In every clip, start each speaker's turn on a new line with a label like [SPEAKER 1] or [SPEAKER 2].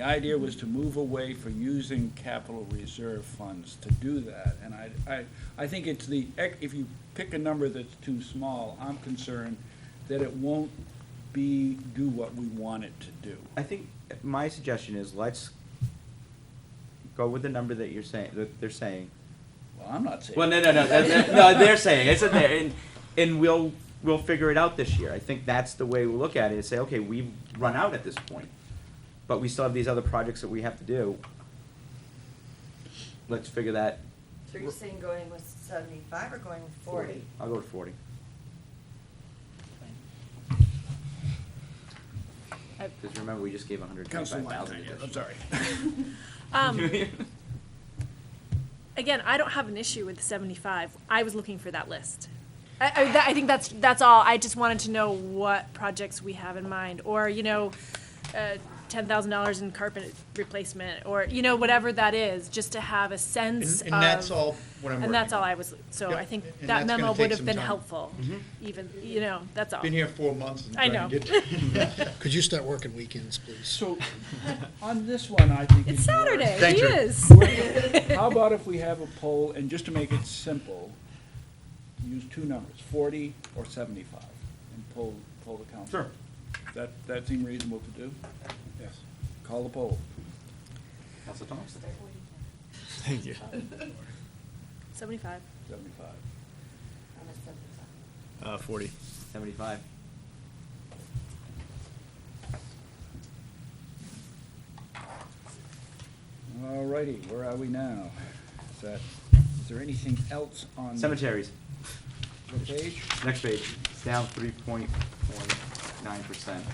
[SPEAKER 1] The idea was to move away for using capital reserve funds to do that, and I, I, I think it's the, ec- if you pick a number that's too small, I'm concerned that it won't be, do what we want it to do.
[SPEAKER 2] I think my suggestion is let's go with the number that you're saying, that they're saying.
[SPEAKER 1] Well, I'm not saying.
[SPEAKER 2] Well, no, no, no, that- that- no, they're saying, it's in there, and, and we'll, we'll figure it out this year. I think that's the way we look at it, is say, okay, we've run out at this point, but we still have these other projects that we have to do. Let's figure that.
[SPEAKER 3] So you're saying going with seventy-five or going with forty?
[SPEAKER 2] I'll go with forty. Cause remember, we just gave hundred
[SPEAKER 1] Council
[SPEAKER 2] twenty-five
[SPEAKER 1] Lyon,
[SPEAKER 2] thousand
[SPEAKER 1] I'm sorry.
[SPEAKER 4] Um, again, I don't have an issue with the seventy-five. I was looking for that list. I, I, that, I think that's, that's all. I just wanted to know what projects we have in mind, or, you know, uh, ten thousand dollars in carpet replacement, or, you know, whatever that is, just to have a sense
[SPEAKER 5] And,
[SPEAKER 4] of.
[SPEAKER 5] and that's all what I'm working
[SPEAKER 4] And that's all
[SPEAKER 5] on.
[SPEAKER 4] I was, so
[SPEAKER 5] Yep,
[SPEAKER 4] I think
[SPEAKER 5] and that's
[SPEAKER 4] that
[SPEAKER 5] gonna
[SPEAKER 4] memo
[SPEAKER 5] take
[SPEAKER 4] would have
[SPEAKER 5] some
[SPEAKER 4] been
[SPEAKER 5] time. Mm-hmm.
[SPEAKER 4] helpful, even, you know, that's all.
[SPEAKER 5] Been here four months and
[SPEAKER 4] I
[SPEAKER 5] trying to
[SPEAKER 4] know.
[SPEAKER 5] get.
[SPEAKER 6] Could you start working weekends, please?
[SPEAKER 1] So, on this one, I think.
[SPEAKER 4] It's
[SPEAKER 1] it's worth-
[SPEAKER 4] Saturday,
[SPEAKER 5] Thank
[SPEAKER 4] it
[SPEAKER 5] you.
[SPEAKER 4] is.
[SPEAKER 1] How about if we have a poll, and just to make it simple, use two numbers, forty or seventy-five, and poll, poll the council?
[SPEAKER 2] Sure.
[SPEAKER 1] That, that seem reasonable to do? Yes. Call the poll.
[SPEAKER 2] Council Thompson?
[SPEAKER 7] Thank you.
[SPEAKER 4] Seventy-five.
[SPEAKER 1] Seventy-five.
[SPEAKER 3] I'm at seventy-five.
[SPEAKER 7] Uh, forty.
[SPEAKER 2] Seventy-five.
[SPEAKER 1] All righty, where are we now? Is that, is there anything else on?
[SPEAKER 2] Cemeteries,
[SPEAKER 1] The page?
[SPEAKER 2] next page, it's down three point one nine percent.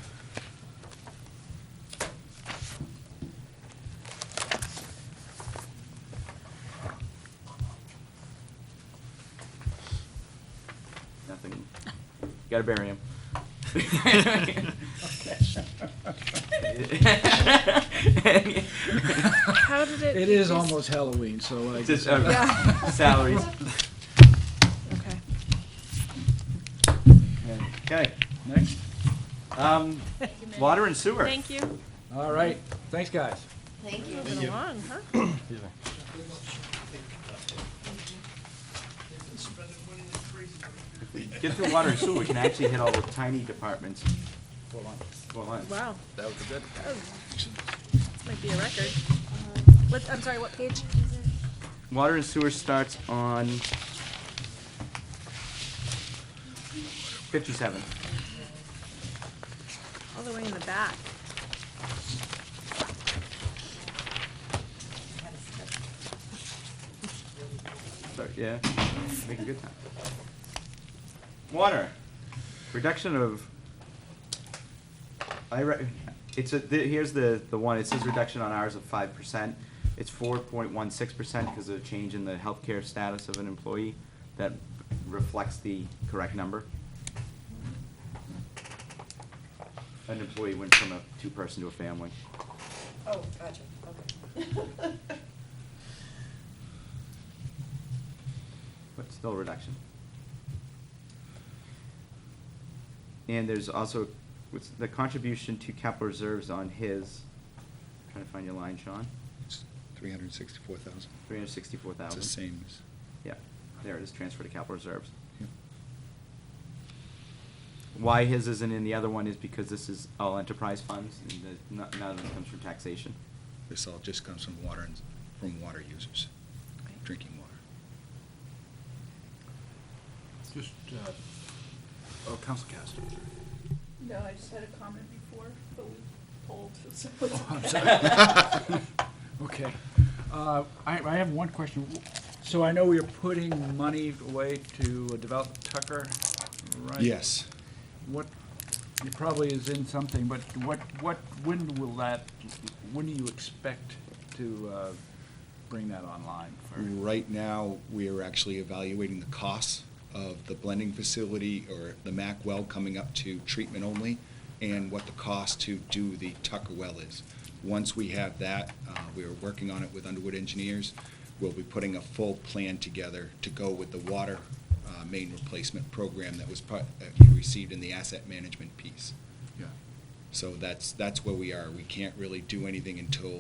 [SPEAKER 2] Nothing, You gotta bury him.
[SPEAKER 4] How did it?
[SPEAKER 6] It is
[SPEAKER 4] decrease?
[SPEAKER 6] almost Halloween, so I
[SPEAKER 2] Just, uh,
[SPEAKER 6] guess.
[SPEAKER 4] Yeah.
[SPEAKER 2] Salaries.
[SPEAKER 4] Okay.
[SPEAKER 2] Okay,
[SPEAKER 1] Next?
[SPEAKER 2] um, water and sewer.
[SPEAKER 4] Thank you.
[SPEAKER 1] All right, thanks, guys.
[SPEAKER 3] Thank you.
[SPEAKER 4] Moving along, huh?
[SPEAKER 2] If we get through water and sewer, we can actually hit all the tiny departments. Four lines. Four lines.
[SPEAKER 4] Wow.
[SPEAKER 2] That was good.
[SPEAKER 4] Oh, This might be a record. Uh, What, I'm sorry, what page?
[SPEAKER 2] Water and sewer starts on fifty-seven.
[SPEAKER 4] All the way in the back.
[SPEAKER 2] Sorry, yeah, make a good time. Water, reduction of, I, re- it's a, the- here's the, the one, it says reduction on hours of five percent. It's four point one six percent because of a change in the healthcare status of an employee that reflects the correct number. An employee went from a two-person to a family.
[SPEAKER 3] Oh, gotcha, okay.
[SPEAKER 2] but still a reduction. And there's also, what's the contribution to capital reserves on his, trying to find your line, Sean,
[SPEAKER 6] Three hundred and sixty-four thousand.
[SPEAKER 2] three hundred sixty-four thousand.
[SPEAKER 6] as.
[SPEAKER 2] Yeah, there it is, transfer to capital reserves.
[SPEAKER 6] Yeah.
[SPEAKER 2] Why his isn't in the other one is because this is all enterprise funds, and the, none none of it comes from taxation.
[SPEAKER 6] This all just comes from water and, from water users, drinking water.
[SPEAKER 7] Just, uh, oh, Council Cast.
[SPEAKER 8] No, I just had a comment before, but we polled, so it's
[SPEAKER 1] I'm
[SPEAKER 8] okay.
[SPEAKER 1] sorry. Okay. Uh, I, I have one question. So I know we are putting money away to develop Tucker, right?
[SPEAKER 6] Yes.
[SPEAKER 1] What, it probably is in something, but what, what, when will that, when do you expect to uh, bring that online? for-
[SPEAKER 6] Right now, we are actually evaluating the costs of the blending facility or the Mack well coming up to treatment only and what the cost to do the Tucker well is. Once we have that, uh, we are working on it with Underwood Engineers. We'll be putting a full plan together to go with the water uh, main replacement program that was part, that you received in the asset management piece.
[SPEAKER 1] Yeah.
[SPEAKER 6] So that's, that's where we are. We can't really do anything until